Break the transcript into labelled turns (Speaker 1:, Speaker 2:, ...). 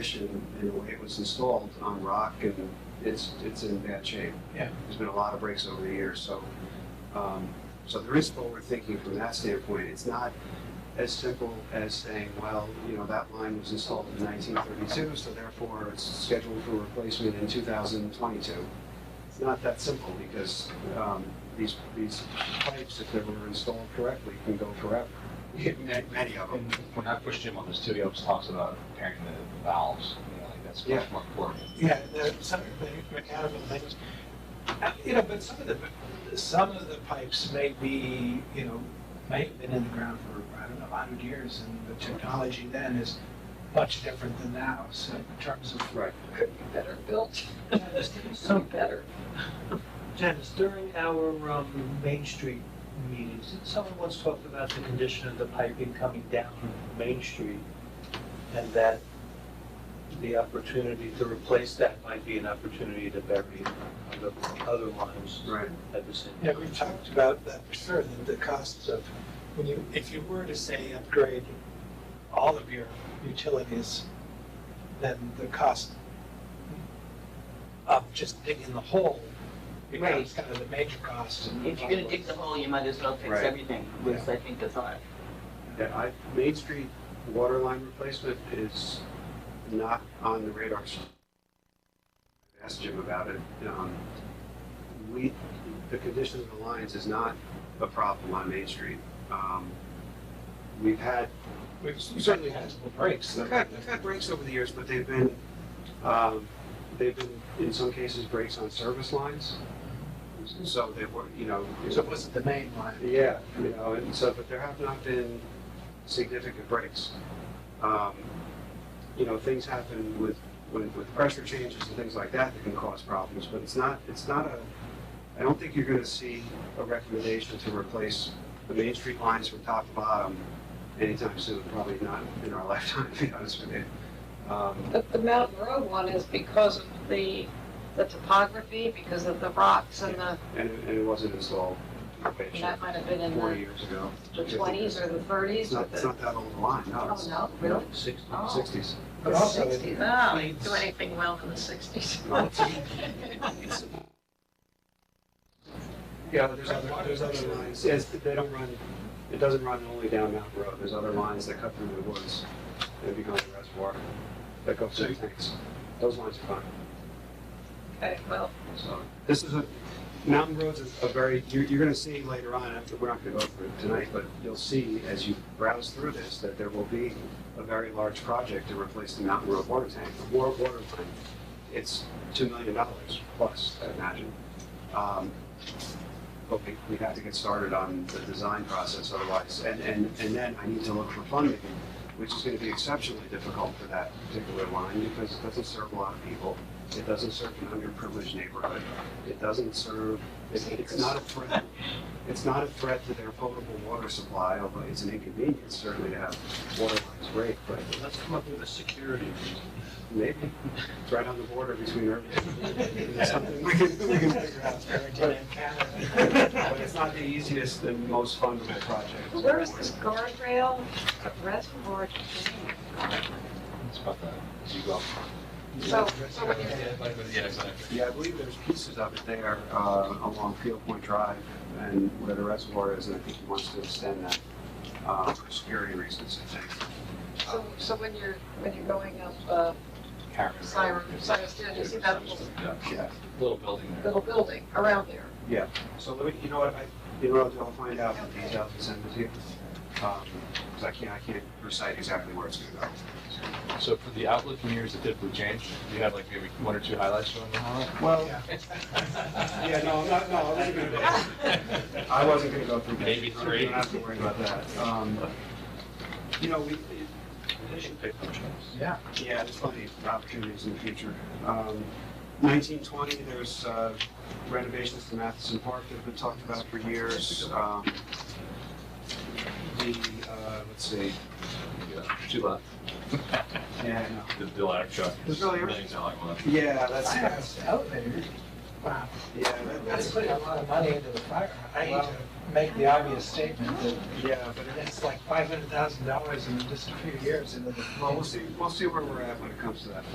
Speaker 1: addition, you know, it was installed on rock and it's, it's in bad shape.
Speaker 2: Yeah.
Speaker 1: There's been a lot of breaks over the years, so, um, so there is forward thinking from that standpoint. It's not as simple as saying, well, you know, that line was installed in nineteen thirty-two, so therefore it's scheduled for replacement in two thousand twenty-two. It's not that simple because, um, these, these pipes, if they were installed correctly, can go forever. Many many of them.
Speaker 2: And when I pushed him on this too, he always talks about repairing the valves, you know, like that's
Speaker 1: Yeah.
Speaker 2: much more important.
Speaker 3: Yeah, the, some of the mechanical things, Uh, you know, but some of the, some of the pipes may be, you know, may have been in the ground for, I don't know, hundred years, and the technology then is much different than now, so in terms of.
Speaker 1: Right.
Speaker 4: could be better built, some better.
Speaker 5: Janice, during our um, Main Street meetings, someone once talked about the condition of the piping coming down Main Street, and that the opportunity to replace that might be an opportunity to bury other- other lines
Speaker 1: Right.
Speaker 5: at the same
Speaker 3: Yeah,
Speaker 5: time.
Speaker 3: we've talked about that for sure, that the costs of, when you, if you were to say upgrade all of your utilities, then the cost of just digging the hole becomes kind of the major cost.
Speaker 6: If you're gonna dig the hole, you might as well fix
Speaker 1: Right.
Speaker 6: everything, was I think the thought.
Speaker 1: Yeah, I, uh, Main Street water line replacement is not on the radar screen. I Asked Jim about it. Um, we, the condition of the lines is not a problem on Main Street. Um, we've had,
Speaker 3: We've certainly had some breaks.
Speaker 1: we've had, we've had breaks over the years, but they've been, um, they've been, in some cases, breaks on service lines. So they were, you know. it-
Speaker 3: So it wasn't the main line.
Speaker 1: Yeah, you know, and so, but there have not been significant breaks. Um, You know, things happen with, with, with pressure changes and things like that that can cause problems, but it's not, it's not a, I don't think you're gonna see a recommendation to replace the Main Street lines from top to bottom anytime soon, probably not in our lifetime, to be honest with you. Um,
Speaker 4: But the Mountain Road one is because of the, the topography, because of the rocks and the,
Speaker 1: And, it- and it wasn't installed,
Speaker 4: and that might have been in
Speaker 1: forty
Speaker 4: the
Speaker 1: years ago.
Speaker 4: the twenties or the
Speaker 1: It's
Speaker 4: thirties
Speaker 1: not,
Speaker 4: with
Speaker 1: it's
Speaker 4: the,
Speaker 1: not that old a line, no,
Speaker 4: oh,
Speaker 1: it's
Speaker 4: no, really?
Speaker 5: Sixty.
Speaker 4: Oh.
Speaker 1: sixties.
Speaker 3: But
Speaker 4: The
Speaker 3: also it-
Speaker 4: sixties, oh, we didn't do anything well in the sixties.
Speaker 1: Yeah, but there's other, there's other lines, yes, but they don't run, it doesn't run only down Mountain Road, there's other lines that cut through the woods and become a reservoir that go through tanks. Those lines are fine,
Speaker 4: Okay, well,
Speaker 1: so, this is a, Mountain Road's a a very, you're, you're gonna see later on, after, we're not gonna go through it tonight, but you'll see as you browse through this, that there will be a very large project to replace the Mountain Road water tank, the war water tank. It's two million dollars plus, I imagine. Um, but we, we have to get started on the design process otherwise. And, and, and then I need to look for funding, which is gonna be exceptionally difficult for that particular line because it doesn't serve a lot of people. It doesn't serve an underprivileged neighborhood. It doesn't serve, it's, it's not a threat. It's not a threat to their potable water supply, although it's an inconvenience certainly to have water lines break, but
Speaker 5: Let's come up with a security reason.
Speaker 1: maybe it's right on the border between urban. It's something we can, we can figure out. But it's not the easiest and most fundable project.
Speaker 4: where is this guardrail reservoir? thing?
Speaker 2: It's about the, as you go up.
Speaker 4: So, so when you're
Speaker 2: Yeah, exactly.
Speaker 1: Yeah, I believe there's pieces of it there uh, along Field Point Drive and where the reservoir is, and I think he wants to extend that uh, for security reasons, I think.
Speaker 4: So, so when you're, when you're going up, uh,
Speaker 2: Karen.
Speaker 4: Cyrus, Cyrus, did you see that little,
Speaker 1: Yeah.
Speaker 2: Little building there.
Speaker 4: little building around there?
Speaker 1: So let me, you know what, I, you know what, I'll do? I'll find out the details and send it to you. Because I can't, I can't recite exactly where it's going to go.
Speaker 2: So for the outlook in years that typically change, do you have like maybe one or two highlights you want to highlight?
Speaker 1: Well, yeah, no, I'm not, no, I wasn't going to, I wasn't going to go through that.
Speaker 2: Maybe three.
Speaker 1: You don't have to worry about that. Um, You know, we,
Speaker 5: They should pick those up.
Speaker 2: Yeah.
Speaker 1: Yeah, there's plenty of opportunities in the future. Um, 1920, there's uh, renovations to Matheson Park that have been talked about for years. Um, The, uh, let's see,
Speaker 2: Two left.
Speaker 1: yeah, I know.
Speaker 2: The, the ladder truck.
Speaker 1: There's really-
Speaker 2: Million dollar one.
Speaker 1: yeah, that's,
Speaker 3: I have elevators. Wow.
Speaker 1: Yeah,
Speaker 3: That-
Speaker 1: that-
Speaker 3: That's
Speaker 1: that's,
Speaker 3: putting a lot of money into the fire. I hate to make the obvious statement that
Speaker 1: yeah, but it-
Speaker 3: it's like five hundred thousand dollars in just a few years into the.
Speaker 1: well, we'll see, we'll see where we're at when it comes to that.